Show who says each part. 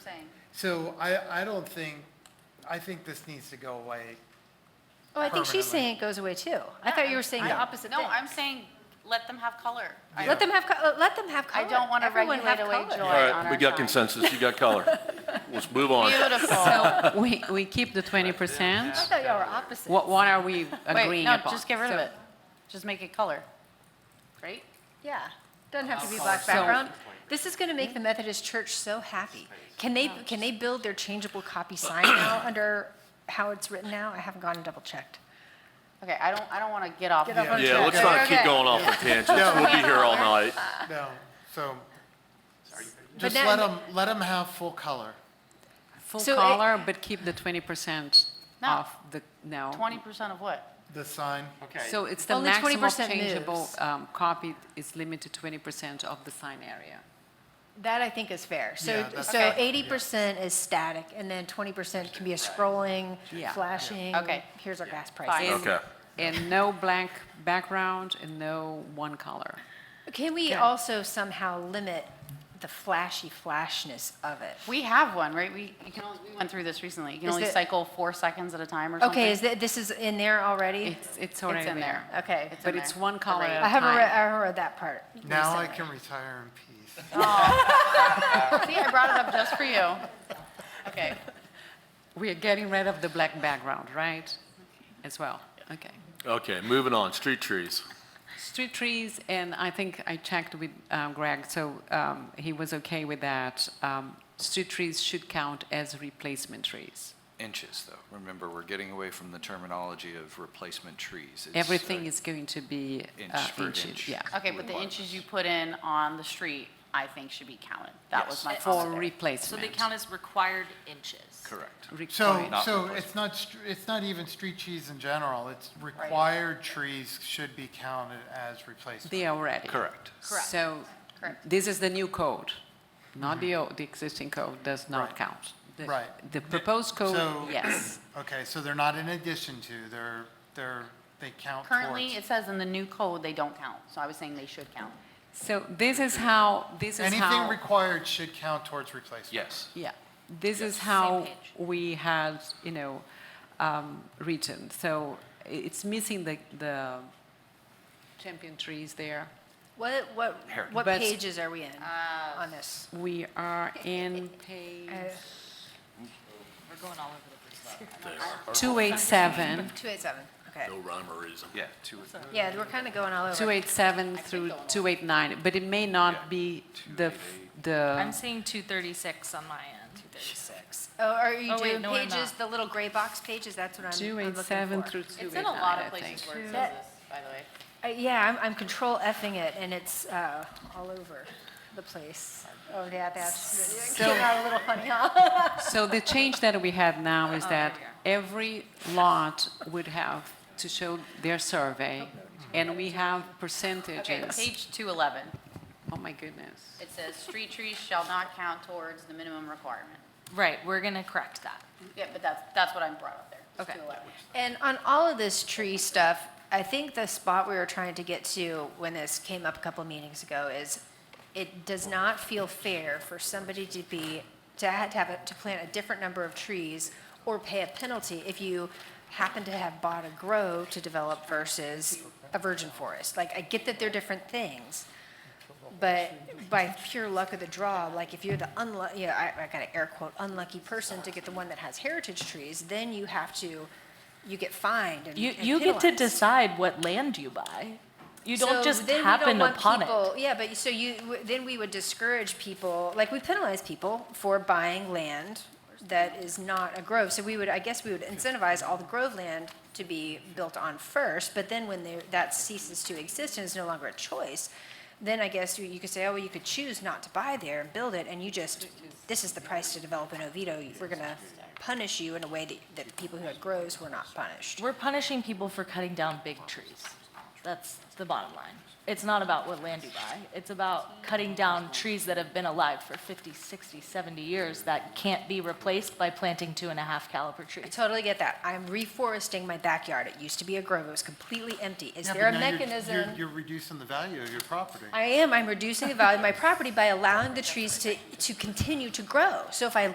Speaker 1: saying.
Speaker 2: So I, I don't think, I think this needs to go away.
Speaker 3: Oh, I think she's
Speaker 2: Permanently.
Speaker 3: saying it goes away too. I thought you were saying the
Speaker 1: I-
Speaker 3: opposite
Speaker 1: No,
Speaker 3: thing.
Speaker 1: I'm saying, let them have color. I-
Speaker 3: Let them have, co- let them have color.
Speaker 1: I don't wanna
Speaker 3: Everyone have
Speaker 1: regulate away
Speaker 3: color.
Speaker 1: joy.
Speaker 4: All
Speaker 1: on
Speaker 4: right,
Speaker 1: our
Speaker 4: we got
Speaker 1: side.
Speaker 4: consensus, you got color. Let's move on.
Speaker 1: Beautiful.
Speaker 5: So we, we keep the 20%?
Speaker 3: I thought y'all were opposite.
Speaker 5: What, what are we
Speaker 1: Wait,
Speaker 5: agreeing
Speaker 1: no,
Speaker 5: upon?
Speaker 1: just get rid of
Speaker 5: So-
Speaker 1: it. Just make it color. Right?
Speaker 3: Yeah, doesn't have to be black background. This is gonna make the Methodist Church so happy. Can they, can they build their changeable copy sign now under how it's written now? I haven't gone and double checked.
Speaker 1: Okay, I don't, I don't want to get off.
Speaker 3: Get off
Speaker 1: here.
Speaker 3: on
Speaker 4: Yeah, let's not keep
Speaker 1: Okay.
Speaker 4: going off on tangents, we'll be here all night.
Speaker 2: No, so,
Speaker 3: Ah. But
Speaker 2: just
Speaker 3: now-
Speaker 2: let them, let them have full color.
Speaker 5: Full
Speaker 3: So it-
Speaker 5: color, but keep the 20%
Speaker 1: No.
Speaker 5: off the, no.
Speaker 1: Twenty percent of what?
Speaker 2: The sign,
Speaker 5: So it's the
Speaker 3: Only
Speaker 5: maximum
Speaker 3: 20%
Speaker 5: changeable
Speaker 3: moves.
Speaker 5: um, copy is limited to 20% of the sign area.
Speaker 3: That I think is fair. So,
Speaker 2: Yeah, that's
Speaker 3: so
Speaker 2: Okay.
Speaker 3: eighty percent is static and then twenty percent can be a scrolling,
Speaker 5: Yeah.
Speaker 3: flashing.
Speaker 1: Okay.
Speaker 3: Here's our gas
Speaker 1: Fine.
Speaker 3: price.
Speaker 5: And-
Speaker 4: Okay.
Speaker 5: And no black background and no one color.
Speaker 3: Can we also somehow limit the flashy flashness of it?
Speaker 1: We have one, right? We, you can only, we went through this recently. You can
Speaker 3: Is
Speaker 1: only
Speaker 3: it-
Speaker 1: cycle four seconds at a time or something.
Speaker 3: Okay, is that, this is in there already?
Speaker 5: It's, it's
Speaker 1: It's
Speaker 5: already
Speaker 1: in there.
Speaker 5: there.
Speaker 3: Okay.
Speaker 1: It's in
Speaker 5: But it's
Speaker 1: there.
Speaker 5: one color
Speaker 1: Alright.
Speaker 3: I
Speaker 5: at a
Speaker 3: haven't read, I
Speaker 5: time.
Speaker 3: haven't read that part.
Speaker 2: now I
Speaker 3: recently.
Speaker 2: can retire in peace.
Speaker 1: See, I brought it up just for you. Okay.
Speaker 5: We are getting rid of the black background, right? As well, okay.
Speaker 4: Okay, moving on, street trees.
Speaker 5: Street trees, and I think I checked with um, Greg, so um, he was okay with that. Um, Street trees should count as replacement trees.
Speaker 6: Inches, though. Remember, we're getting away from the terminology of replacement trees. It's,
Speaker 5: Everything
Speaker 6: uh,
Speaker 5: is going to be
Speaker 6: Inch
Speaker 5: uh,
Speaker 6: for
Speaker 5: inches,
Speaker 6: inch.
Speaker 5: yeah.
Speaker 1: Okay, but the inches you put in on the street, I think should be counted. That was
Speaker 6: Yes.
Speaker 1: my
Speaker 5: For
Speaker 1: thought there.
Speaker 7: So they
Speaker 5: replacement.
Speaker 7: count as required inches.
Speaker 6: Correct.
Speaker 2: So,
Speaker 5: Required.
Speaker 6: Not
Speaker 2: so
Speaker 6: replacement.
Speaker 2: it's not, str- it's not even street trees in general, it's required trees should be counted as replacement.
Speaker 5: They are already.
Speaker 6: Correct.
Speaker 1: Correct.
Speaker 5: So
Speaker 1: Correct.
Speaker 5: this is the new code, not the, old- the existing code does
Speaker 2: Mm-hmm.
Speaker 5: not
Speaker 2: Right.
Speaker 5: count. The-
Speaker 2: Right.
Speaker 5: The proposed code,
Speaker 2: So-
Speaker 5: yes.
Speaker 2: Okay, so they're not in addition to, they're, they're, they count towards.
Speaker 1: Currently, it says in the new code, they don't count. So I was saying they should count.
Speaker 5: So this is how, this is how.
Speaker 2: Anything required should count towards replacement.
Speaker 6: Yes.
Speaker 5: Yeah, this is how
Speaker 7: Same page.
Speaker 5: we had, you know, um, written. So i- it's missing the, the champion trees there.
Speaker 3: What, what, what
Speaker 5: But-
Speaker 3: pages are we in on this? Uh,
Speaker 5: We are in page
Speaker 7: We're going all over the place.
Speaker 5: 287,
Speaker 3: 287, okay.
Speaker 4: No rhyme or reason.
Speaker 6: Yeah, two,
Speaker 3: Yeah, we're kind of going all over.
Speaker 5: 287 through 289, but it may not
Speaker 6: Yeah.
Speaker 5: be the, f-
Speaker 7: I'm
Speaker 5: the,
Speaker 7: seeing 236 on my end. 236.
Speaker 3: Oh, are you
Speaker 7: Oh, wait,
Speaker 3: doing
Speaker 7: no, I'm
Speaker 3: pages,
Speaker 7: not.
Speaker 3: the little gray box pages? That's what I'm I'm looking for.
Speaker 5: 287 through
Speaker 1: It's in a lot
Speaker 5: 289,
Speaker 1: of
Speaker 5: I think.
Speaker 1: places where it says
Speaker 3: That-
Speaker 1: this, by the way.
Speaker 3: Uh, Yeah, I'm, I'm control effing it and it's uh, all over the place. Oh, yeah, that's, came out a little funny, huh?
Speaker 5: So the change that we have now
Speaker 1: Oh,
Speaker 5: is that every lot would have to show their survey, and we have
Speaker 1: Okay,
Speaker 5: percentages.
Speaker 1: page 211.
Speaker 5: Oh, my goodness.
Speaker 1: It says, "Street trees shall not count towards the minimum requirement."
Speaker 7: Right, we're going to correct that.
Speaker 1: Yeah, but that's, that's what I brought up there. It's
Speaker 7: Okay.
Speaker 1: 211.
Speaker 3: And on all of this tree stuff, I think the spot we were trying to get to when this came up a couple meetings ago is it does not feel fair for somebody to be, to have, to have, a- to plant a different number of trees or pay a penalty if you happen to have bought a grow to develop versus a virgin forest. Like, I get that they're different things, but by pure luck of the draw, like if you're the unlucky, you know, I, I gotta air quote, unlucky person to get the one that has heritage trees, then you have to, you get fined and
Speaker 8: You,
Speaker 3: and
Speaker 8: you get to
Speaker 3: penalized.
Speaker 8: decide what land you buy. You don't
Speaker 3: So
Speaker 8: just
Speaker 3: then we don't
Speaker 8: happen
Speaker 3: want
Speaker 8: upon
Speaker 3: people-
Speaker 8: it.
Speaker 3: Yeah, but you- so you, w- then we would discourage people, like we penalize people for buying land that is not a grove. So we would, I guess we would incentivize all the grove land to be built on first, but then when they- that ceases to exist and is no longer a choice, then I guess you- you could say, oh, well, you could choose not to buy there and build it, and you just, this is the price to develop an Oviedo. We're gonna punish you in a way that, that the people who had groves were not punished.
Speaker 8: We're punishing people for cutting down big trees. That's the bottom line. It's not about what land you buy. It's about cutting down trees that have been alive for 50, 60, 70 years that can't be replaced by planting two and a half caliber
Speaker 3: I
Speaker 8: trees.
Speaker 3: totally get that. I'm reforesting my backyard. It used to be a grove. It was completely empty. Is
Speaker 2: Yeah,
Speaker 3: there a
Speaker 2: but now you're-
Speaker 3: mechanism?
Speaker 2: You're, you're reducing the value of your property.
Speaker 3: I am. I'm reducing the value of my property by allowing the trees to, to continue to grow. So if I